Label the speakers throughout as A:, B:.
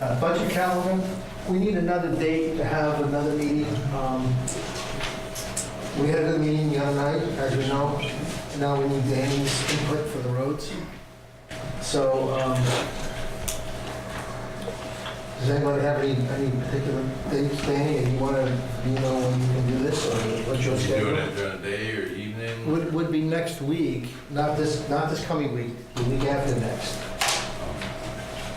A: uh, budget calendar. We need another date to have another meeting. Um, We had a good meeting the other night, as you know. Now we need Danny's input for the roads. So, um, does anybody have any, any particular dates, Danny? And you want to, you know, when you can do this, or what's your
B: Doing
A: schedule?
B: it during the day or evening?
A: Would, would be next week, not this, not this coming week, the week after next.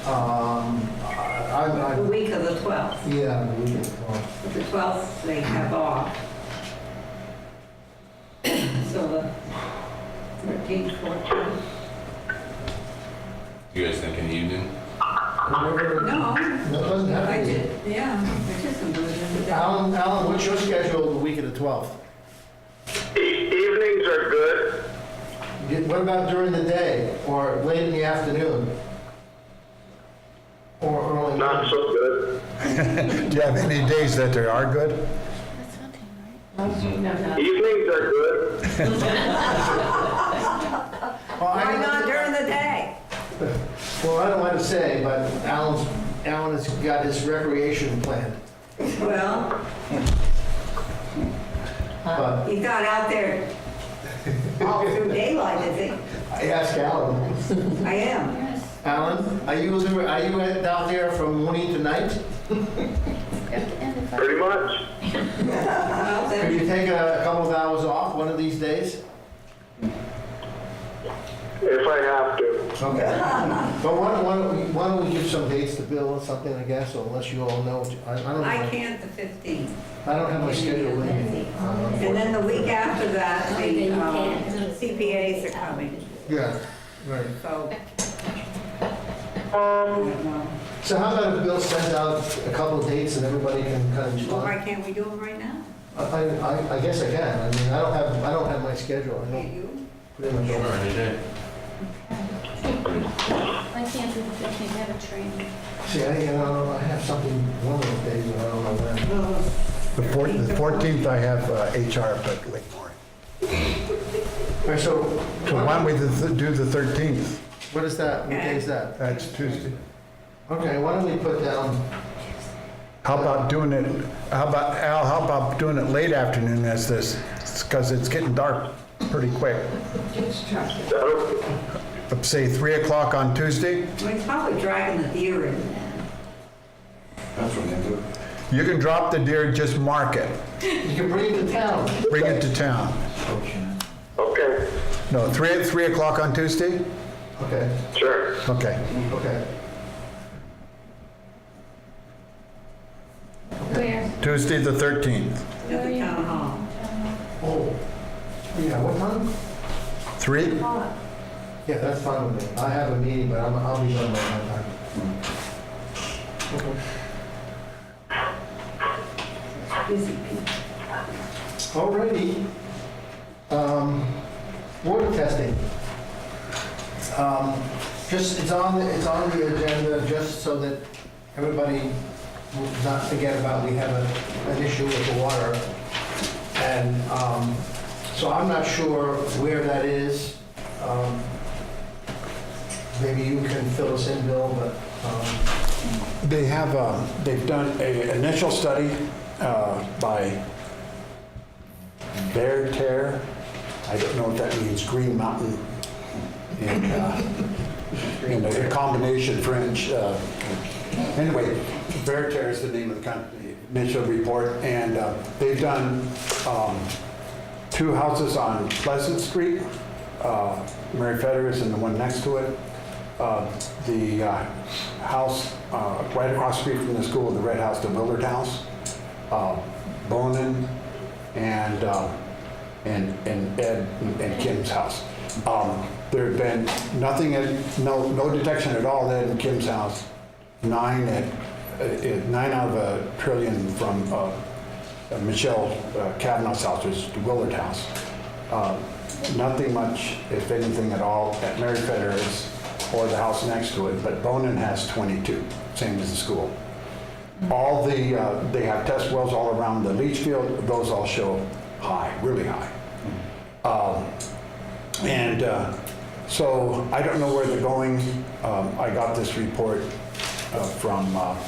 A: Um, I,
C: The
A: I, I-
C: week of the 12th.
A: yeah, the week before.
C: The 12th, they have off. So the 13th, 14th.
B: You guys thinking evening?
A: Whatever-
C: No,
A: No, it doesn't
C: I
A: have to
C: did, yeah, I just am doing it.
A: be. Alan, Alan, what's your schedule the week of the 12th?
D: E- Evenings are good.
A: Yeah, What about during the day, or late in the afternoon? Or early?
D: Not so good.
E: Do you have any days that they are good?
F: That's not him, right?
D: Evenings are good.
A: Well, I
C: Why
A: don't-
C: not during the day?
A: Well, I don't want to say, but Alan's, Alan has got his recreation planned,
C: Well,
A: but.
C: he got out there all through daylight, I think.
A: I asked Alan.
C: I am.
A: Alan, are you, are you out there from morning to night?
F: And if I-
D: Pretty much.
C: Well,
A: Could
C: then,
A: you take a couple of hours off one of these days?
D: If I have to.
A: Okay. But why don't, why don't we- why don't we give some dates to Bill or something, I guess, or unless you all know, I I don't,
C: I
A: know.
C: can't the 15th.
A: I don't have my schedule with me. um,
C: And then the week after that, the um, CPAs are coming,
A: Yeah, right.
C: so. I don't know.
A: So how about if Bill sends out a couple of dates and everybody can kind of,
C: Well, why
A: I,
C: can't we do them right now?
A: I, I guess I can, I mean, I don't have, I don't have my schedule, I
C: Can't
A: don't
C: you?
A: pretty much.
B: Sure, any day.
F: I can't do the 15th, I have a training.
A: See, I, you know, I have something one of those days, but I don't know when.
E: The four- the 14th, I have uh, HR, but late morning.
A: All right, so
E: So why don't we th- do the 13th?
A: What is that? What day is that?
E: That's Tuesday.
A: Okay, why don't we put down,
E: How about doing it, how about, Al, how about doing it late afternoon as this? Because it's getting dark pretty quick.
D: That'll,
E: Say 3 o'clock on Tuesday?
C: Well, It's probably dragging the deer in there.
E: You can drop the deer, just mark it.
A: you can bring it to town.
E: Bring it to town.
D: okay,
E: No, 3, 3 o'clock on Tuesday?
A: Okay,
D: sure.
E: Okay.
A: okay.
F: Where?
E: Tuesday, the 13th.
C: at the town hall.
A: Oh, yeah, what time?
E: 3?
A: Yeah, that's fine with me. I have a meeting, but I'm, I'll be done by that time. Okay.
C: Busy people.
A: Alrighty. Um, water testing. Um, just, it's on, the- it's on the agenda just so that everybody will not forget about we have a, an issue with the water. And, um, so I'm not sure where that is. Um, Maybe you can fill us in, Bill, but, um,
G: They have, um, they've done a initial study uh, by Bear Tear. I don't know if that means Green Mountain. And, uh, you know, a combination French. uh, Anyway, Bear Tear is the name of the company, initial report. And uh, they've done um, two houses on Pleasant Street, uh, Mary Federer's and the one next to it. Uh, The uh, house uh, right across the street from the school, the red house, the Willard House, uh, Bonin, and, uh, and and Ed and Kim's house. Um, There have been nothing, at- no, no detection at all at Ed and Kim's house, nine at, uh, nine out of a trillion from uh, uh, Michelle uh, Kavanaugh's house, which is the Willard House. Uh, Nothing much, if anything at all, at Mary Federer's or the house next to it, but Bonin has 22, same as the school. All the, uh, they have test wells all around the leach field, those all show high, really high. Um, And uh, so I don't know where they're going. Um, I got this report uh, from uh,